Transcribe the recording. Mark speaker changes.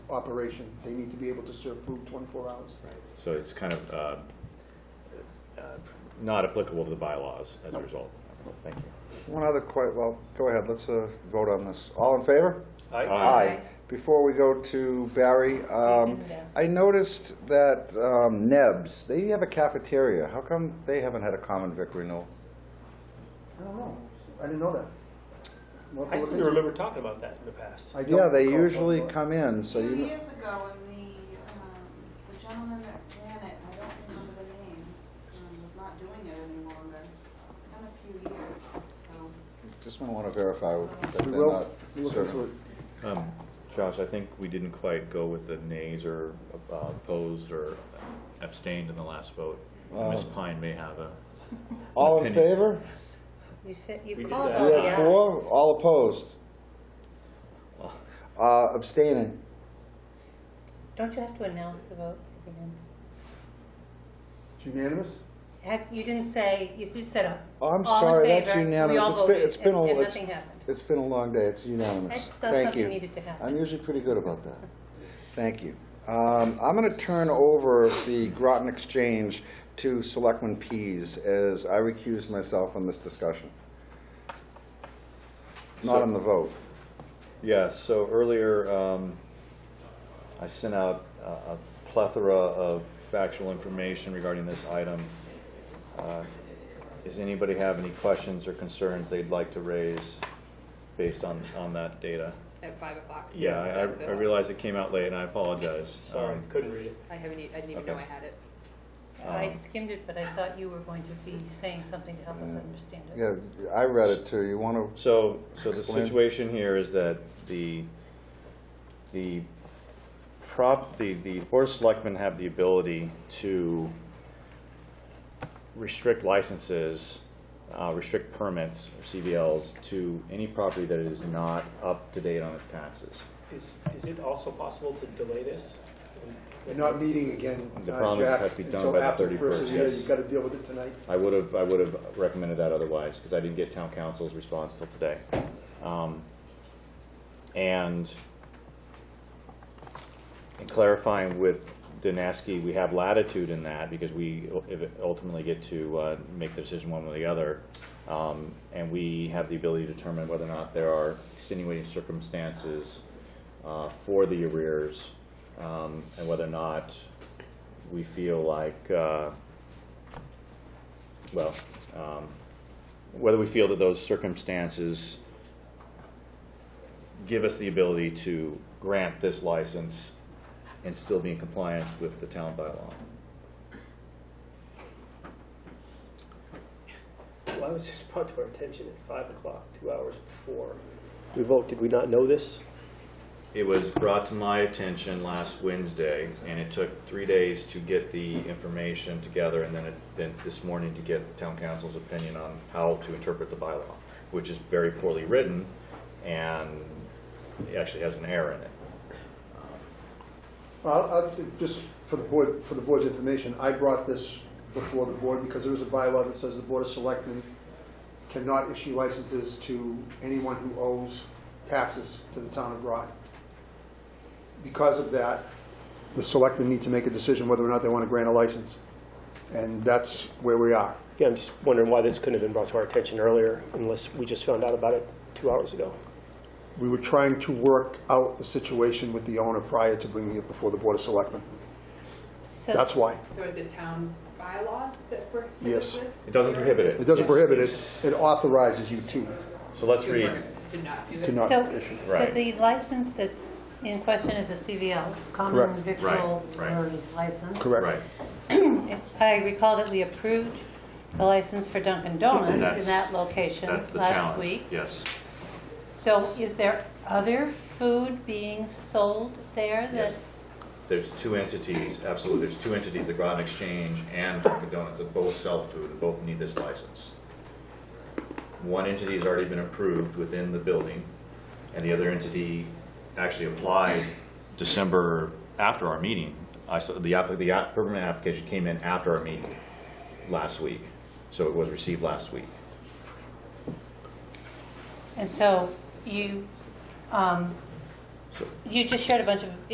Speaker 1: operation. They need to be able to serve food 24 hours.
Speaker 2: So it's kind of uh, uh, not applicable to the bylaws as a
Speaker 1: Nope.
Speaker 2: result. Thank you.
Speaker 3: One other quite, well, go ahead, let's uh, vote on this. All in favor?
Speaker 2: Aye.
Speaker 3: Before we go to Barry, um, I noticed that um, Neb's, they have a cafeteria. How come they haven't had a common vic renewal?
Speaker 1: I don't know. I didn't know that. What-
Speaker 4: I
Speaker 1: what
Speaker 4: seem
Speaker 1: they
Speaker 4: to
Speaker 1: do.
Speaker 4: remember talking about that in the past.
Speaker 1: I don't
Speaker 3: Yeah, they
Speaker 1: recall.
Speaker 3: usually come in, so
Speaker 5: Two
Speaker 3: you, know-
Speaker 5: years ago, when the, um, the gentleman that ran it, I don't remember the name, um, was not doing it any longer. It's been a few years, so.
Speaker 3: just want to verify that
Speaker 1: We
Speaker 3: they're
Speaker 1: will,
Speaker 3: not
Speaker 1: we'll look into
Speaker 3: serving.
Speaker 1: it.
Speaker 2: Um, Josh, I think we didn't quite go with the nays or uh, opposed or abstained in the last vote.
Speaker 3: Oh.
Speaker 2: Ms. Pine may have a,
Speaker 3: All in
Speaker 2: Opinion.
Speaker 3: favor?
Speaker 6: You said,
Speaker 4: We
Speaker 6: you
Speaker 4: did
Speaker 6: called
Speaker 4: that.
Speaker 6: all
Speaker 3: We
Speaker 6: the
Speaker 3: have four, all opposed,
Speaker 2: well,
Speaker 3: Uh, abstaining.
Speaker 6: Don't you have to announce the vote at the end?
Speaker 1: It's unanimous?
Speaker 6: Have, you didn't say, you just said, uh,
Speaker 3: Oh, I'm
Speaker 6: all in
Speaker 3: sorry, that's
Speaker 6: favor, we
Speaker 3: unanimous.
Speaker 6: all
Speaker 3: It's been-
Speaker 6: voted,
Speaker 3: it's been a-
Speaker 6: and- and
Speaker 3: it's-
Speaker 6: nothing happened.
Speaker 3: It's been a long day, it's
Speaker 6: I
Speaker 3: unanimous.
Speaker 6: just thought
Speaker 3: Thank
Speaker 6: something
Speaker 3: you.
Speaker 6: needed to happen.
Speaker 3: I'm usually pretty good about that. Thank you. Um, I'm going to turn over the Groton Exchange to Selectman Pease, as I recuse myself from this discussion. Not on the vote.
Speaker 2: Yeah, so earlier, um, I sent out a a plethora of factual information regarding this item. Uh, Does anybody have any questions or concerns they'd like to raise based on, on that data?
Speaker 7: At five o'clock?
Speaker 2: Yeah, I,
Speaker 7: Is that
Speaker 2: I- I
Speaker 7: the-
Speaker 2: realized it came out late and I apologize.
Speaker 4: Sorry,
Speaker 2: Um,
Speaker 4: couldn't read it.
Speaker 7: I haven't, e- I didn't even
Speaker 2: Okay.
Speaker 7: know I had it.
Speaker 6: I
Speaker 2: um,
Speaker 6: skimmed it, but I thought you were going to be saying something to help us understand it.
Speaker 3: Yeah, I read it too. You want to,
Speaker 2: So, so the
Speaker 3: Explain.
Speaker 2: situation here is that the, the prop, the, the board of selectmen have the ability to restrict licenses, uh, restrict permits, or CBLs, to any property that is not up to date on its taxes.
Speaker 4: Is, is it also possible to delay this?
Speaker 1: They're not meeting again,
Speaker 2: The
Speaker 1: uh,
Speaker 2: promise
Speaker 1: Jack,
Speaker 2: had to be done
Speaker 1: until
Speaker 2: by the
Speaker 1: after the first of
Speaker 2: 31st,
Speaker 1: the year.
Speaker 2: yes.
Speaker 1: You've got to deal with it tonight.
Speaker 2: I would have, I would have recommended that otherwise, because I didn't get town council's response till today. Um, And in clarifying with Dineski, we have latitude in that, because we u- if it ultimately get to uh, make the decision one way or the other. Um, And we have the ability to determine whether or not there are extenuating circumstances uh, for the arrears, um, and whether or not we feel like, uh, well, um, whether we feel that those circumstances give us the ability to grant this license and still be in compliance with the town bylaw.
Speaker 4: Why was this brought to our attention at five o'clock, two hours before? We vote, did we not know this?
Speaker 2: It was brought to my attention last Wednesday, and it took three days to get the information together, and then, it- then this morning to get town council's opinion on how to interpret the bylaw, which is very poorly written, and it actually has an error in it.
Speaker 1: Well, I'll- I'll- just for the board, for the board's information, I brought this before the board because there is a bylaw that says the Board of Selectmen cannot issue licenses to anyone who owes taxes to the town of Groton. Because of that, the selectmen need to make a decision whether or not they want to grant a license. And that's where we are.
Speaker 4: Yeah, I'm just wondering why this couldn't have been brought to our attention earlier unless we just found out about it two hours ago.
Speaker 1: We were trying to work out the situation with the owner prior to bringing it before the Board of Selectmen.
Speaker 6: So-
Speaker 1: That's why.
Speaker 7: So it's a town bylaw that prohibits
Speaker 1: Yes.
Speaker 7: this?
Speaker 2: It doesn't prohibit it.
Speaker 1: It doesn't prohibit
Speaker 2: It's-
Speaker 1: it. It authorizes you to,
Speaker 2: So let's
Speaker 7: To
Speaker 2: read,
Speaker 7: not- to not do
Speaker 1: to
Speaker 7: this?
Speaker 1: not
Speaker 6: So,
Speaker 1: issue.
Speaker 6: so
Speaker 2: Right.
Speaker 6: the license that's in question is a CVL,
Speaker 1: Correct.
Speaker 6: common
Speaker 1: Right,
Speaker 6: victual
Speaker 2: right.
Speaker 6: owner's license.
Speaker 1: Correct.
Speaker 2: right,
Speaker 6: I recall that we approved the license for Dunkin' Donuts
Speaker 2: That's-
Speaker 6: in that location
Speaker 2: that's the
Speaker 6: last
Speaker 2: challenge,
Speaker 6: week.
Speaker 2: yes.
Speaker 6: So is there other food being sold there that?
Speaker 2: Yes. There's two entities, absolutely, there's two entities, the Groton Exchange and Dunkin' Donuts, that both sell food, and both need this license. One entity has already been approved within the building, and the other entity actually applied December, after our meeting. I saw, the app, the app- permanent application came in after our meeting last week, so it was received last week.
Speaker 6: And so you, um,
Speaker 2: So-
Speaker 6: you just shared a bunch of